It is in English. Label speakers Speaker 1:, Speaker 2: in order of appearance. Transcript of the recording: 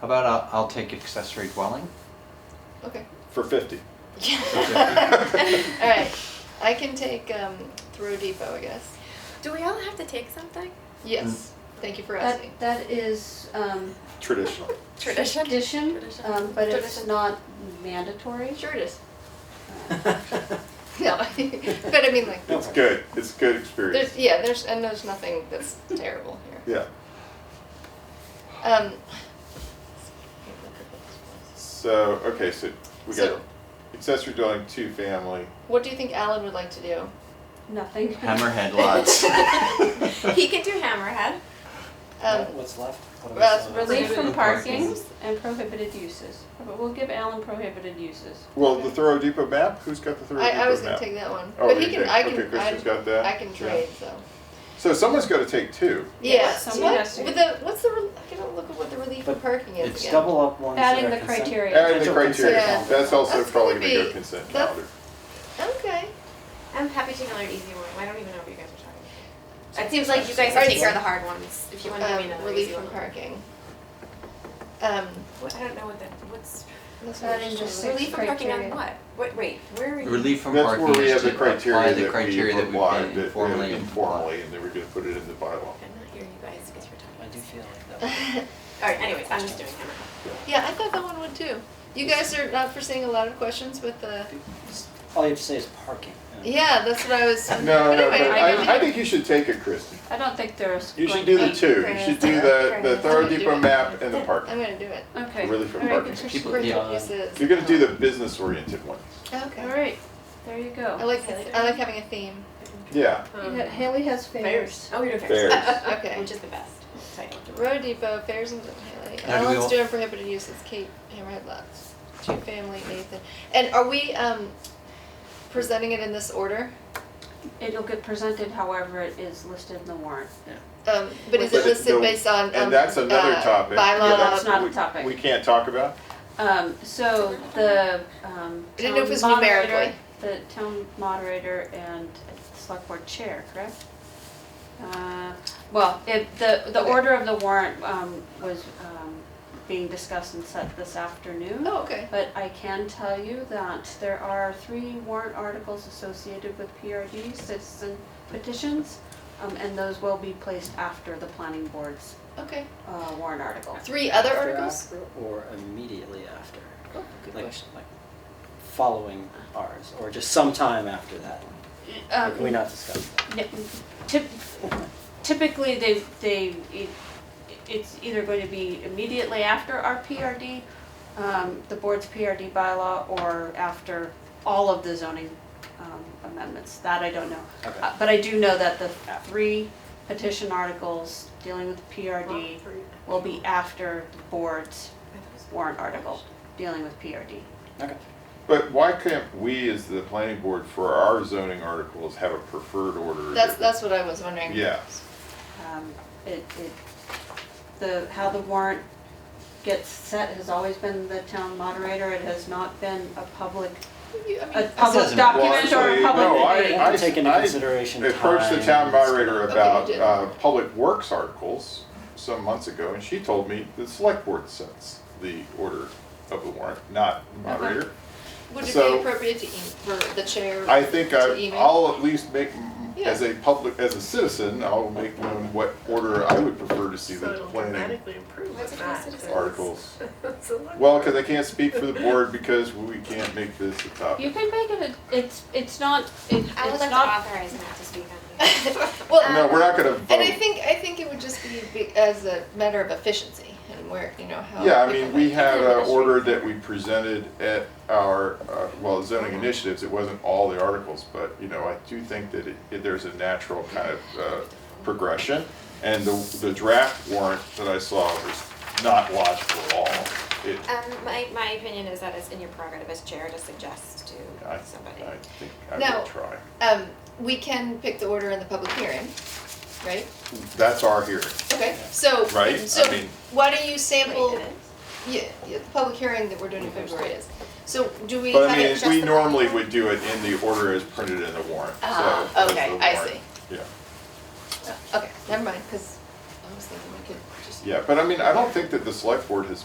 Speaker 1: How about I'll, I'll take accessory dwelling?
Speaker 2: Okay.
Speaker 3: for fifty.
Speaker 2: All right. I can take um, Throw Depot, I guess.
Speaker 4: Do we all have to take something?
Speaker 2: Yes.
Speaker 3: Mm.
Speaker 2: Thank you for
Speaker 5: That,
Speaker 2: asking.
Speaker 5: that is um,
Speaker 3: Traditional.
Speaker 4: Tradition.
Speaker 5: tradition,
Speaker 4: Tradition.
Speaker 5: um, but it's
Speaker 4: Tradition.
Speaker 5: not mandatory.
Speaker 2: Sure it is.
Speaker 5: Uh,
Speaker 2: No, but I mean like
Speaker 3: It's good. It's a good experience.
Speaker 2: there's yeah there's and there's nothing that's terrible here.
Speaker 3: Yeah.
Speaker 2: Um.
Speaker 3: So okay, so we
Speaker 2: So-
Speaker 3: got accessory dwelling, two family.
Speaker 2: What do you think Alan would like to do?
Speaker 5: Nothing.
Speaker 1: Hammerhead lots.
Speaker 4: he can do hammerhead.
Speaker 2: Um,
Speaker 6: What's left? What are we
Speaker 2: well,
Speaker 6: still-
Speaker 5: Relief from
Speaker 1: Prohibited parking.
Speaker 5: parking and prohibited uses. But we'll give Alan prohibited uses.
Speaker 3: Well, the Thorough Depot map. Who's got the Thorough
Speaker 2: I,
Speaker 3: Depot
Speaker 2: I was gonna
Speaker 3: map?
Speaker 2: take that one,
Speaker 3: Oh,
Speaker 2: but
Speaker 3: you
Speaker 2: he can
Speaker 3: did.
Speaker 2: I can
Speaker 3: Okay, Kristen's
Speaker 2: I,
Speaker 3: got that?
Speaker 2: I can
Speaker 3: Yeah.
Speaker 2: trade so.
Speaker 3: so someone's got to take two.
Speaker 2: Yeah.
Speaker 5: someone
Speaker 2: what?
Speaker 5: has to-
Speaker 2: With the what's the re- I gotta look at what the relief from
Speaker 6: But
Speaker 2: parking is
Speaker 6: It's
Speaker 2: again.
Speaker 6: double up ones that
Speaker 5: Adding
Speaker 6: are
Speaker 5: the
Speaker 6: consent-
Speaker 5: criteria.
Speaker 3: Add the
Speaker 6: potential
Speaker 3: criteria.
Speaker 6: consent
Speaker 2: Yeah.
Speaker 6: calendar.
Speaker 3: That's also
Speaker 2: That's
Speaker 3: probably
Speaker 2: gonna
Speaker 3: going to go
Speaker 2: be-
Speaker 3: consent
Speaker 2: that's-
Speaker 3: calendar.
Speaker 2: Okay.
Speaker 4: I'm happy to another easy one. I don't even know what you guys are talking about. It seems like you guys are
Speaker 2: Alright,
Speaker 4: taking care of the hard ones. If you want to give me
Speaker 2: Um,
Speaker 4: another
Speaker 2: relief
Speaker 4: easy
Speaker 2: from
Speaker 4: one.
Speaker 2: parking. Um,
Speaker 4: What, I don't know what that. What's
Speaker 2: that's
Speaker 5: That
Speaker 2: what
Speaker 5: is
Speaker 2: I'm
Speaker 5: just
Speaker 2: trying to-
Speaker 5: Six
Speaker 4: relief from parking on
Speaker 5: criteria.
Speaker 4: what? What? Wait, where are you?
Speaker 1: Relief from
Speaker 3: That's
Speaker 1: parking
Speaker 3: where we
Speaker 1: is
Speaker 3: have the
Speaker 1: to apply
Speaker 3: criteria
Speaker 1: the
Speaker 3: that we
Speaker 1: criteria that
Speaker 3: applied,
Speaker 1: we've been
Speaker 3: that
Speaker 1: informally
Speaker 3: uh,
Speaker 1: applied.
Speaker 3: informally, and then we're going to put it in the bylaw.
Speaker 4: I'm not hearing you guys because you're
Speaker 6: I do
Speaker 4: talking.
Speaker 6: feel like that.
Speaker 4: All right. Anyways, I'm just doing hammerhead.
Speaker 2: Yeah, I thought that one would too. You guys are not foreseeing a lot of questions with the,
Speaker 6: All you have to say is parking. you know.
Speaker 2: yeah, that's what I was.
Speaker 3: No, no,
Speaker 2: Anyway,
Speaker 3: but
Speaker 2: I
Speaker 3: I, I
Speaker 2: mean,
Speaker 3: think you should take it, Kristen.
Speaker 5: I don't think there's.
Speaker 3: You should
Speaker 5: going
Speaker 3: do
Speaker 5: to
Speaker 3: the
Speaker 5: be-
Speaker 3: two. You should do the, the Thorough Depot map and the
Speaker 2: I'm
Speaker 3: parking.
Speaker 2: gonna do it.
Speaker 5: Okay.
Speaker 3: Really from
Speaker 5: All right,
Speaker 3: parking.
Speaker 5: Patricia.
Speaker 1: People, yeah,
Speaker 6: yeah.
Speaker 2: This is-
Speaker 3: You're going to do the business oriented ones.
Speaker 5: All
Speaker 2: Oh, Okay.
Speaker 5: right, there you
Speaker 2: I
Speaker 5: go.
Speaker 2: like, I like having a theme.
Speaker 3: Yeah.
Speaker 5: Yeah, Haley has favors.
Speaker 4: Um, Oh, you're doing
Speaker 3: Fairs.
Speaker 2: Okay.
Speaker 4: Which is the best title.
Speaker 2: Road Depot, Fairs and Haley.
Speaker 1: Now, do we
Speaker 2: Alan's
Speaker 1: all-
Speaker 2: doing prohibited uses, Kate, Hammerhead Lots, Two Family, Nathan. And are we, um, presenting it in this order?
Speaker 5: It'll get presented however it is listed in the warrant.
Speaker 2: Um, but is it
Speaker 3: But
Speaker 2: listed
Speaker 3: the-
Speaker 2: based on, um,
Speaker 3: And that's another
Speaker 2: uh,
Speaker 3: topic. Yeah,
Speaker 2: Bylaw,
Speaker 5: that's not a
Speaker 3: we-
Speaker 5: topic.
Speaker 3: We can't talk about.
Speaker 5: Um, so the, um,
Speaker 2: I didn't know if it
Speaker 5: town
Speaker 2: was
Speaker 5: moderator-
Speaker 2: numerically.
Speaker 5: The town moderator and select board chair, correct? Uh, well, it, the, the
Speaker 2: Okay.
Speaker 5: order of the warrant, um, was, um, being discussed and set this afternoon.
Speaker 2: oh, okay.
Speaker 5: But I can tell you that there are three warrant articles associated with PRD citizen petitions, um, and those will be placed after the planning board's,
Speaker 2: Okay.
Speaker 5: uh, warrant article.
Speaker 2: Three other
Speaker 6: After,
Speaker 2: articles?
Speaker 6: after, Or immediately after.
Speaker 2: Oh, good
Speaker 6: Like,
Speaker 2: question.
Speaker 6: like following ours, or just sometime after that. Or Can we
Speaker 5: Um,
Speaker 6: not discuss that?
Speaker 5: Yeah, typ- Typically, they, they, it- it's either going to be immediately after our PRD, um, the board's PRD bylaw, or after all of the zoning um, amendments, that I don't know.
Speaker 6: Okay.
Speaker 5: Uh, But I do know that the three petition articles dealing with PRD will be after the board's warrant article dealing with PRD.
Speaker 6: Okay.
Speaker 3: But why can't we, as the planning board, for our zoning articles, have a preferred order?
Speaker 2: That's,
Speaker 3: that-
Speaker 2: that's what I was wondering.
Speaker 3: Yeah.
Speaker 5: Um, It, it, the, how the warrant gets set has always been the town moderator. It has not been a public,
Speaker 2: You- I mean,
Speaker 5: a public
Speaker 1: doesn't-
Speaker 5: document or
Speaker 3: Well,
Speaker 5: a
Speaker 3: actually, no,
Speaker 5: public
Speaker 3: I-
Speaker 5: debate.
Speaker 3: I-
Speaker 6: We'll take into
Speaker 3: I
Speaker 6: consideration
Speaker 3: I approached the
Speaker 6: time
Speaker 3: town
Speaker 6: and-
Speaker 3: moderator
Speaker 2: Okay,
Speaker 3: about
Speaker 2: you did.
Speaker 3: uh, public works articles some months ago, and she told me the select board sets the order of the warrant, not the moderator.
Speaker 2: Would it be
Speaker 3: So-
Speaker 2: appropriate to, e- for the chair?
Speaker 3: I think
Speaker 2: To
Speaker 3: I,
Speaker 2: email?
Speaker 3: I'll at least make, m- as a public, as a citizen, I'll make known what order I would prefer to see the planning
Speaker 4: What's it called?
Speaker 3: articles. Well, because I can't speak for the board because we can't make this a
Speaker 5: You
Speaker 3: topic.
Speaker 5: can make it, a- it's, it's not, it-
Speaker 4: I would like
Speaker 5: it's
Speaker 4: to
Speaker 5: not,
Speaker 4: authorize Matt to speak on this.
Speaker 2: Well,
Speaker 3: No, we're not gonna
Speaker 2: and I
Speaker 3: vote.
Speaker 2: think, I think it would just be, be as a matter of efficiency and where, you know, how.
Speaker 3: Yeah, I
Speaker 2: people
Speaker 3: mean, we
Speaker 2: like-
Speaker 3: had an order that we presented at our, uh, well, zoning initiatives, it wasn't all the articles, but, you know, I do think that it, it- there's a natural kind of uh, progression, and the, the draft warrant that I saw was not logical at all. It,
Speaker 4: Um, my, my opinion is that it's in your prerogative as chair to suggest
Speaker 3: I,
Speaker 4: to somebody.
Speaker 3: I think I
Speaker 2: Now-
Speaker 3: would try.
Speaker 2: Um, we can pick the order in the public hearing, right?
Speaker 3: That's our hearing,
Speaker 2: Okay, so,
Speaker 3: Right, I
Speaker 2: so
Speaker 3: mean-
Speaker 2: why don't you sample,
Speaker 4: Wait, it
Speaker 2: yeah,
Speaker 4: is?
Speaker 2: yeah, the public hearing that we're doing in February is. So do we
Speaker 3: but
Speaker 2: have
Speaker 3: I
Speaker 2: it
Speaker 3: mean,
Speaker 2: just
Speaker 3: we
Speaker 2: the-
Speaker 3: normally would do it in the order as printed in the warrant, so.
Speaker 2: Ah,
Speaker 3: that's
Speaker 2: okay,
Speaker 3: the
Speaker 2: I
Speaker 3: warrant.
Speaker 2: see.
Speaker 3: Yeah.
Speaker 2: Okay, never mind, because I was thinking we could just
Speaker 3: Yeah, but I mean, I don't think that the select board has